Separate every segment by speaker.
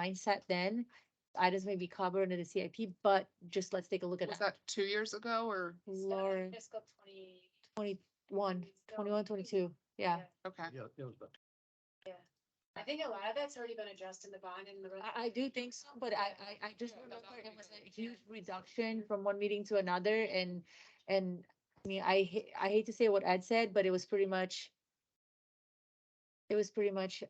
Speaker 1: mindset then. Items may be covered under the CIP, but just let's take a look at
Speaker 2: Was
Speaker 1: that.
Speaker 2: that two years ago or,
Speaker 1: Lauren,
Speaker 3: Fiscal twenty.
Speaker 1: one, twenty-one, twenty-two, yeah.
Speaker 2: okay,
Speaker 4: Yeah, it was about
Speaker 3: I think a lot of that's already been addressed in the bond and the. rest-
Speaker 1: I, I do think so, but I, I, I just
Speaker 3: Yeah,
Speaker 1: remember
Speaker 3: that's
Speaker 1: it was
Speaker 3: okay.
Speaker 1: a huge reduction from one meeting to another and, and I mean, I, ha- I hate to say what Ed said, but it was pretty much, it was pretty much,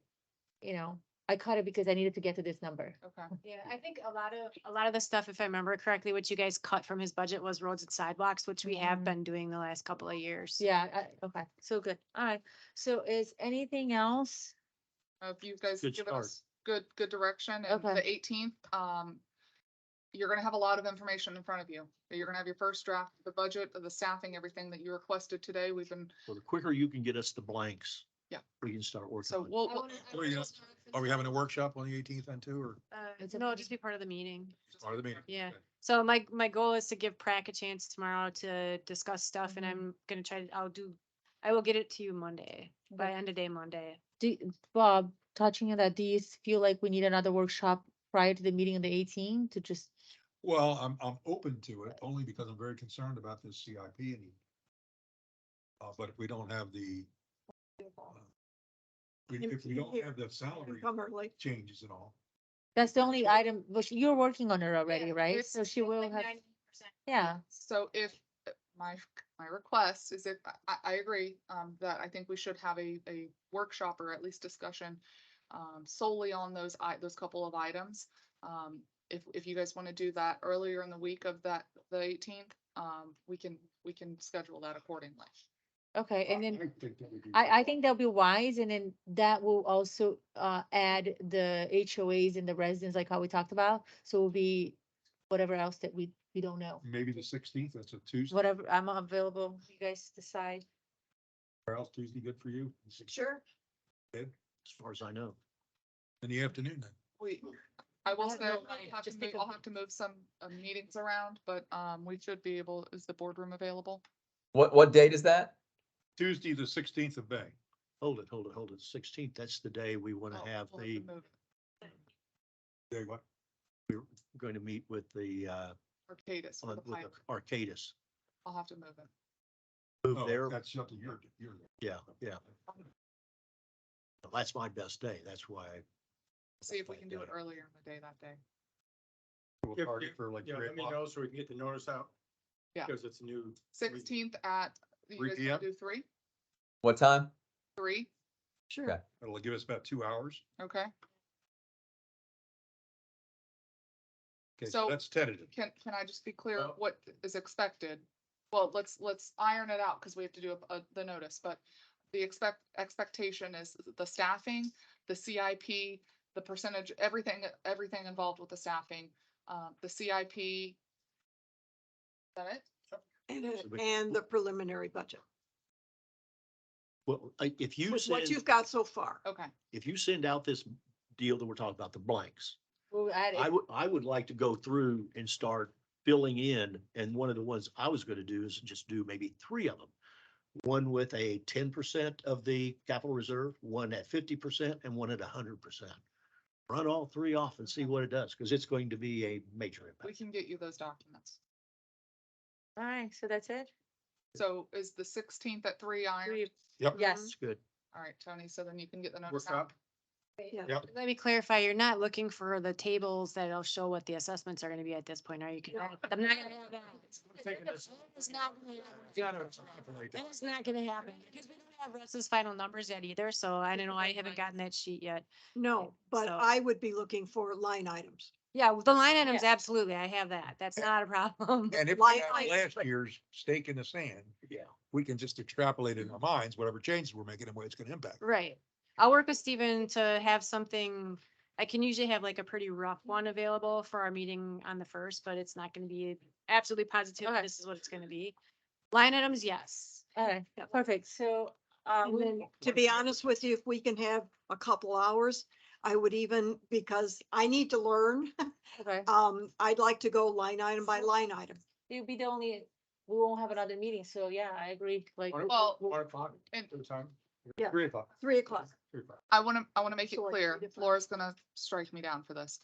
Speaker 1: you know, I cut it because I needed to get to this number.
Speaker 2: okay.
Speaker 3: Yeah, I think a lot of, a lot of the stuff, if I remember correctly, what you guys cut from his budget was roads and sidewalks, which we have
Speaker 1: Mhm.
Speaker 3: been doing the last couple of years.
Speaker 1: Yeah, I, okay, so good. All right. So is anything else?
Speaker 2: Uh, If you guys
Speaker 4: Good
Speaker 2: give
Speaker 4: start.
Speaker 2: us good, good direction and
Speaker 1: Okay.
Speaker 2: the eighteenth, um, you're gonna have a lot of information in front of you. You're gonna have your first draft, of the budget, of the staffing, everything that you requested today. We've been,
Speaker 4: Well, the quicker you can get us the blanks.
Speaker 2: Yeah.
Speaker 4: We can start working.
Speaker 2: so
Speaker 4: on it.
Speaker 2: we'll,
Speaker 3: I
Speaker 2: we'll-
Speaker 3: wanna- I
Speaker 5: Are we
Speaker 3: wanna-
Speaker 5: Are we having a workshop on the eighteenth then too, or
Speaker 3: Uh,
Speaker 1: It's a
Speaker 3: No,
Speaker 1: meeting.
Speaker 3: just be part of the meeting.
Speaker 5: part of the meeting?
Speaker 3: Yeah.
Speaker 5: Okay.
Speaker 3: So my, my goal is to give Prac a chance tomorrow to discuss stuff and
Speaker 1: Mhm.
Speaker 3: I'm gonna try, to. I'll do, I will get it to you Monday, by end of day Monday.
Speaker 1: Do, Bob, touching on that, do you feel like we need another workshop prior to the meeting on the 18th to just
Speaker 5: Well, I'm, I'm open to it only because I'm very concerned about this CIP and uh, but if we don't have the uh, we- if we don't have the salary changes and all,
Speaker 1: That's the only item, which you're working on her already,
Speaker 3: Yeah,
Speaker 1: right?
Speaker 2: it's-
Speaker 1: So she will have, yeah,
Speaker 2: so if uh, my, my request is if, I- I, I agree, um, that I think we should have a, a workshop or at least discussion um, solely on those, i- those couple of items. Um, if, if you guys want to do that earlier in the week of that, the eighteenth, um, we can, we can schedule that accordingly.
Speaker 1: okay, and
Speaker 5: I
Speaker 1: then
Speaker 5: think that would be-
Speaker 1: I, I think that'll be wise, and then that will also, uh, add the HOAs and the residents, like how we talked about. So it'll be whatever else that we, we don't know,
Speaker 5: Maybe the sixteenth, that's a Tuesday,
Speaker 1: whatever, I'm available, you guys decide.
Speaker 5: or else Tuesday, good for you,
Speaker 3: Sure.
Speaker 4: As far as I know.
Speaker 5: in the afternoon then.
Speaker 2: We, I will
Speaker 1: have
Speaker 2: say,
Speaker 1: no
Speaker 2: I'll
Speaker 1: idea,
Speaker 2: have to
Speaker 1: just
Speaker 2: move,
Speaker 1: think of-
Speaker 2: I'll have to move some uh, meetings around, but, um, we should be able, is the boardroom available?
Speaker 6: What, what date is that?
Speaker 5: Tuesday, the sixteenth of May.
Speaker 4: Hold it, hold it, hold it. Sixteenth, that's the day we want
Speaker 2: Oh,
Speaker 4: to have
Speaker 2: we'll
Speaker 4: the,
Speaker 2: move
Speaker 5: Day what?
Speaker 4: going to meet with the, uh,
Speaker 2: Arcadis with
Speaker 4: on-
Speaker 2: the
Speaker 4: with
Speaker 2: pipe.
Speaker 4: the Arcadis.
Speaker 2: I'll have to move it.
Speaker 4: Move
Speaker 5: Oh,
Speaker 4: there.
Speaker 5: That's something you're, you're.
Speaker 4: Yeah, yeah. That's my best day. That's why. I-
Speaker 2: See if we
Speaker 4: why I
Speaker 2: can do it
Speaker 4: it.
Speaker 2: earlier in the day that day.
Speaker 5: We'll
Speaker 7: If
Speaker 5: target
Speaker 7: you-
Speaker 5: for like
Speaker 7: Yeah,
Speaker 5: three
Speaker 7: let me
Speaker 5: o'clock.
Speaker 7: know so we can get the notice out.
Speaker 2: Yeah.
Speaker 7: Because it's new.
Speaker 2: Sixteenth at, you
Speaker 5: 3
Speaker 2: guys wanna
Speaker 5: PM?
Speaker 2: do three?
Speaker 6: What time?
Speaker 2: Three,
Speaker 6: Okay.
Speaker 5: It'll give us about two hours.
Speaker 2: okay.
Speaker 5: Okay,
Speaker 2: So-
Speaker 5: so that's tentative.
Speaker 2: Can, can I just be clear
Speaker 7: Well-
Speaker 2: what is expected? Well, let's, let's iron it out because we have to do a, a- the notice, but the expect, expectation is the staffing, the CIP, the percentage, everything, everything involved with the staffing, uh, the CIP. Is that it?
Speaker 8: And,
Speaker 4: So
Speaker 8: it-
Speaker 4: we-
Speaker 8: and the preliminary budget,
Speaker 4: Well, I- if you
Speaker 8: with
Speaker 4: send,
Speaker 8: what you've got so far.
Speaker 2: Okay,
Speaker 4: if you send out this deal that we're talking about, the blanks,
Speaker 1: We'll add
Speaker 4: I
Speaker 1: it,
Speaker 4: would, I would like to go through and start filling in, and one of the ones I was gonna do is just do maybe three of them. One with a ten percent of the capital reserve, one at fifty percent, and one at hundred percent. Run all three off and see what it does, because it's going to be a major
Speaker 2: we
Speaker 4: impact.
Speaker 2: can get you those documents.
Speaker 1: all right, so that's it?
Speaker 2: So is the sixteenth at three iron?
Speaker 1: Three-
Speaker 5: Yep.
Speaker 1: Yes,
Speaker 4: It's good.
Speaker 2: All right, Tony, so then you can get the notice out.
Speaker 7: Workshop.
Speaker 3: Let me clarify, you're not looking for the tables that'll show what the assessments are gonna be at this point, are you?
Speaker 8: No.
Speaker 3: I'm not gonna have that.
Speaker 7: We're taking this-
Speaker 3: It's not gonna happen.
Speaker 7: Gotta extrapolate that.
Speaker 3: That is not gonna happen, because we don't have Russ's final numbers yet either, so I don't know, I haven't gotten that sheet yet.
Speaker 8: No, but
Speaker 3: So-
Speaker 8: I would be looking for line items.
Speaker 3: Yeah, the line items, absolutely, I have that, that's not a problem.
Speaker 5: And if
Speaker 8: Like-
Speaker 5: we have last year's stake in the sand,
Speaker 4: Yeah.
Speaker 5: we can just extrapolate in our minds, whatever changes we're making and what it's gonna impact.
Speaker 3: Right. I'll work with Steven to have something, I can usually have like a pretty rough one available for our meeting on the first, but it's not gonna be absolutely positive,
Speaker 1: Okay.
Speaker 3: this is what it's gonna be. Line items, yes.
Speaker 1: all right,
Speaker 8: Yep.
Speaker 1: perfect, so, uh,
Speaker 8: And
Speaker 1: we-
Speaker 8: then, to be honest with you, if we can have a couple hours, I would even, because I need to learn.
Speaker 1: okay.
Speaker 8: Um, I'd like to go line item by line item.
Speaker 1: It'll be the only, we won't have another meeting, so yeah, I agree, like,
Speaker 7: One-
Speaker 2: Well-
Speaker 7: One o'clock,
Speaker 2: And-
Speaker 7: the time.
Speaker 8: Yeah.
Speaker 7: Three o'clock.
Speaker 8: Three o'clock.
Speaker 7: Three o'clock.
Speaker 2: I want to, I want to make it
Speaker 8: So, like,
Speaker 2: clear,
Speaker 8: three to five.
Speaker 2: Laura's gonna strike me down for this.